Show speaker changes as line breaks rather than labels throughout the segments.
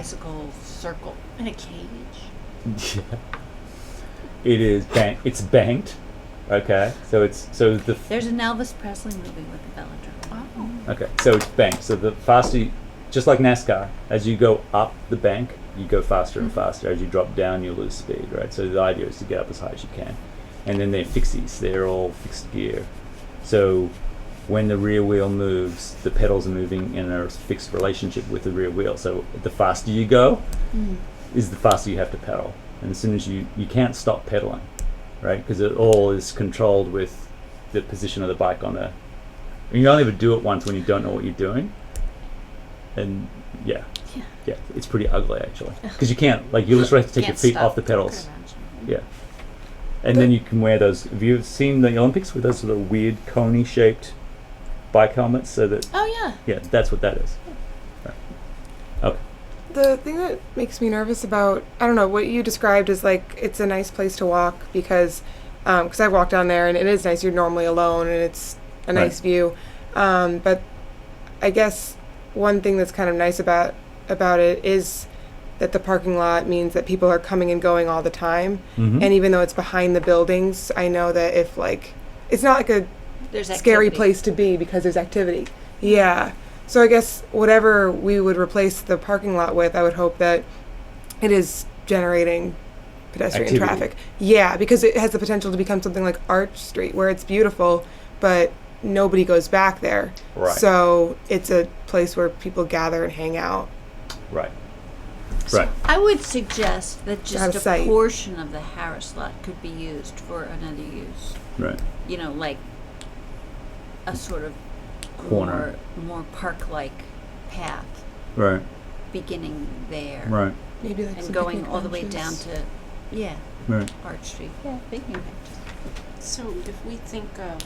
bicycle circle in a cage.
Yeah. It is bank. It's banked. Okay. So it's so the f-
There's an Elvis Presley movie with the velodrome.
Oh.
okay. So it's banked. So the faster, you, just like NASCAR, as you go up the bank, you go faster and faster. As you drop down, you lose speed. Right. So the idea is to get up as high as you can, and then they're fixies. They're all fixed gear. So when the rear wheel moves, the pedals are moving in a fixed relationship with the rear wheel. So the faster you go,
Mm.
is the faster you have to pedal. And as soon as you, you can't stop pedaling, right? Because it all is controlled with the position of the bike on the. And you only ever do it once when you don't know what you're doing. And yeah,
Yeah.
yeah, it's pretty ugly actually. Because you can't, like, you just have to take your
Can't
feet
stop.
off the pedals.
Could imagine.
Yeah. And then you can wear those. Have you seen the Olympics with those sort of weird coney shaped bike helmets? So that,
Oh yeah.
yeah, that's what that is.
The thing that makes me nervous about I don't know what you described is like it's a nice place to walk because because I've walked down there and it is nice. You're normally alone and it's a
Right.
nice view. Um, but I guess one thing that's kind of nice about about it is that the parking lot means that people are coming and going all the time.
Mm-hmm.
And even though it's behind the buildings, I know that if like it's not like a
There's that
scary place to be because there's activity. Yeah. So I guess whatever we would replace the parking lot with, I would hope that it is generating pedestrian
Activity.
traffic. Yeah, because it has the potential to become something like Arch Street, where it's beautiful, but nobody goes back there.
Right.
So it's a place where people gather and hang out.
Right.
So
Right.
I would suggest that
Out of
just a
sight.
portion of the Harris lot could be used for another use.
Right.
You know, like a sort of
Corner.
more, more park-like path
Right.
beginning there
Right.
Maybe like
and going all the way down to yeah
Right.
Arch Street. Yeah, picnic benches.
So if we think of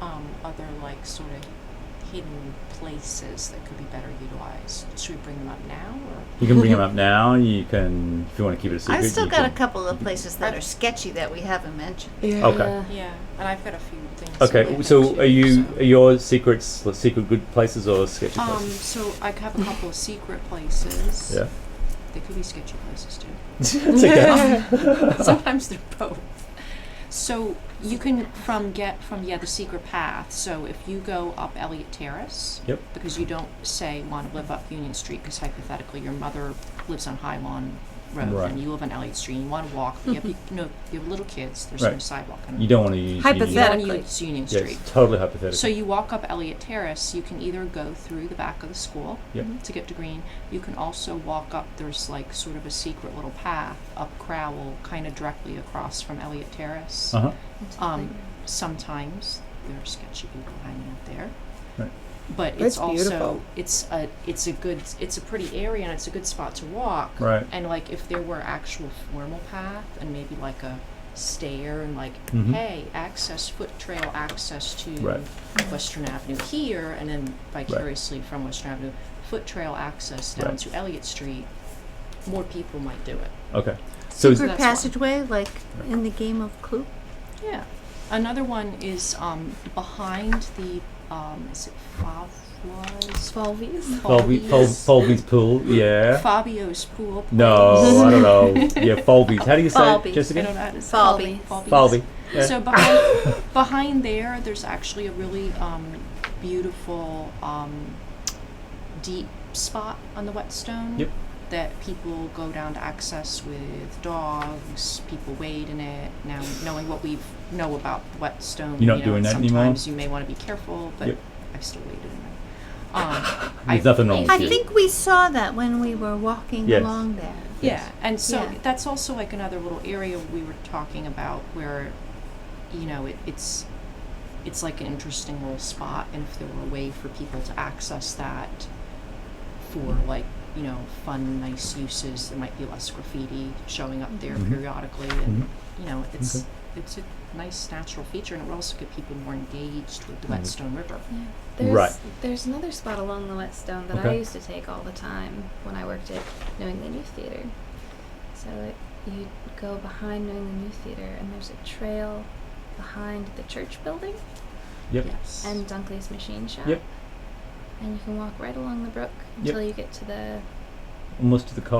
um, other like sort of hidden places that could be better utilized, should we bring them up now or?
You can bring them up now. You can, if you want to keep it a secret.
I've still
you
got a
can-
couple of places that are sketchy that we haven't mentioned.
Yeah.
Okay.
Yeah, and I've got a few things.
Okay. So, are you are your secrets like, secret good places or sketchy
Um,
places?
so I have a couple of secret places.
Yeah.
They could be sketchy places too.
That's okay.
Sometimes they're both. So you can from get from yeah the secret path. So if you go up Elliott Terrace.
Yep.
because you don't say want to live up Union Street because hypothetically your mother lives on High Lawn Road
Right.
and you live on Elliott Street and you want to walk. You have, you know, you have little kids. There's no
Right.
sidewalk. on-
You don't want to use
you
Hypothetical.
Union.
don't
Hypothetically.
wanna use Union
Yeah,
Street.
it's totally hypothetical.
So you walk up Elliott Terrace. You can either go through the back of the school
Yep.
to get to Green. You can also walk up. There's like sort of a secret little path up Crowell, kind of directly across from Elliott Terrace.
uh huh.
Um, sometimes there are sketchy people hanging out there.
Right.
But it's
That's
also
beautiful.
it's a it's a good it's a pretty area and it's a good spot to walk.
Right.
And like if there were actual formal path and maybe like a stair and like
Mhm.
hey access foot trail access to
Right.
Western Avenue here and then vicariously from Western Avenue foot trail access down
Right.
to Elliott Street, more people might do it.
Okay. So,
That's
is-
Secret
one.
passageway, like in the game of Clue.
Yeah. Another one is um, behind the um, is it Favla's
Twelvies.
Folby, Fol- Folby's pool. Yeah.
Fabio's pool.
No, I don't know. Yeah, Folby's. How do you say
Folby.
it,
place. I don't
Jessica?
know how to say
Folby.
it.
Folby. Yeah.
So behind, behind there, there's actually a really um, beautiful um, deep spot on the whetstone
Yep.
that people go down to access with dogs. People wade in it. Now, knowing what we know about the whetstone,
You're
you
not
know,
doing that anymore?
sometimes you may want to be careful, but
Yep.
I've still waded in it. Um,
There's nothing wrong with
I
you.
think we saw that when we were walking
Yes.
along there.
Yeah, and so
Yeah.
that's also like another little area we were talking about where, you know, it, it's it's like an interesting little spot, and if there were a way for people to access that for like you know fun, nice uses, there might be less graffiti showing up there
Mhm.
periodically, and you know, it's
Mm-hmm. Okay.
it's a nice natural feature, and it would also get people more engaged with the Whetstone River.
There's,
Right.
There's another spot along the whetstone that I
Okay.
used to take all the time when I worked at New England Youth Theater. So it, you'd go behind New England Youth Theater, and there's a trail behind the church building
Yep.
Yes.
and Dunkley's Machine Shop.
Yep.
And you can walk right along the brook until you get to the
almost to the co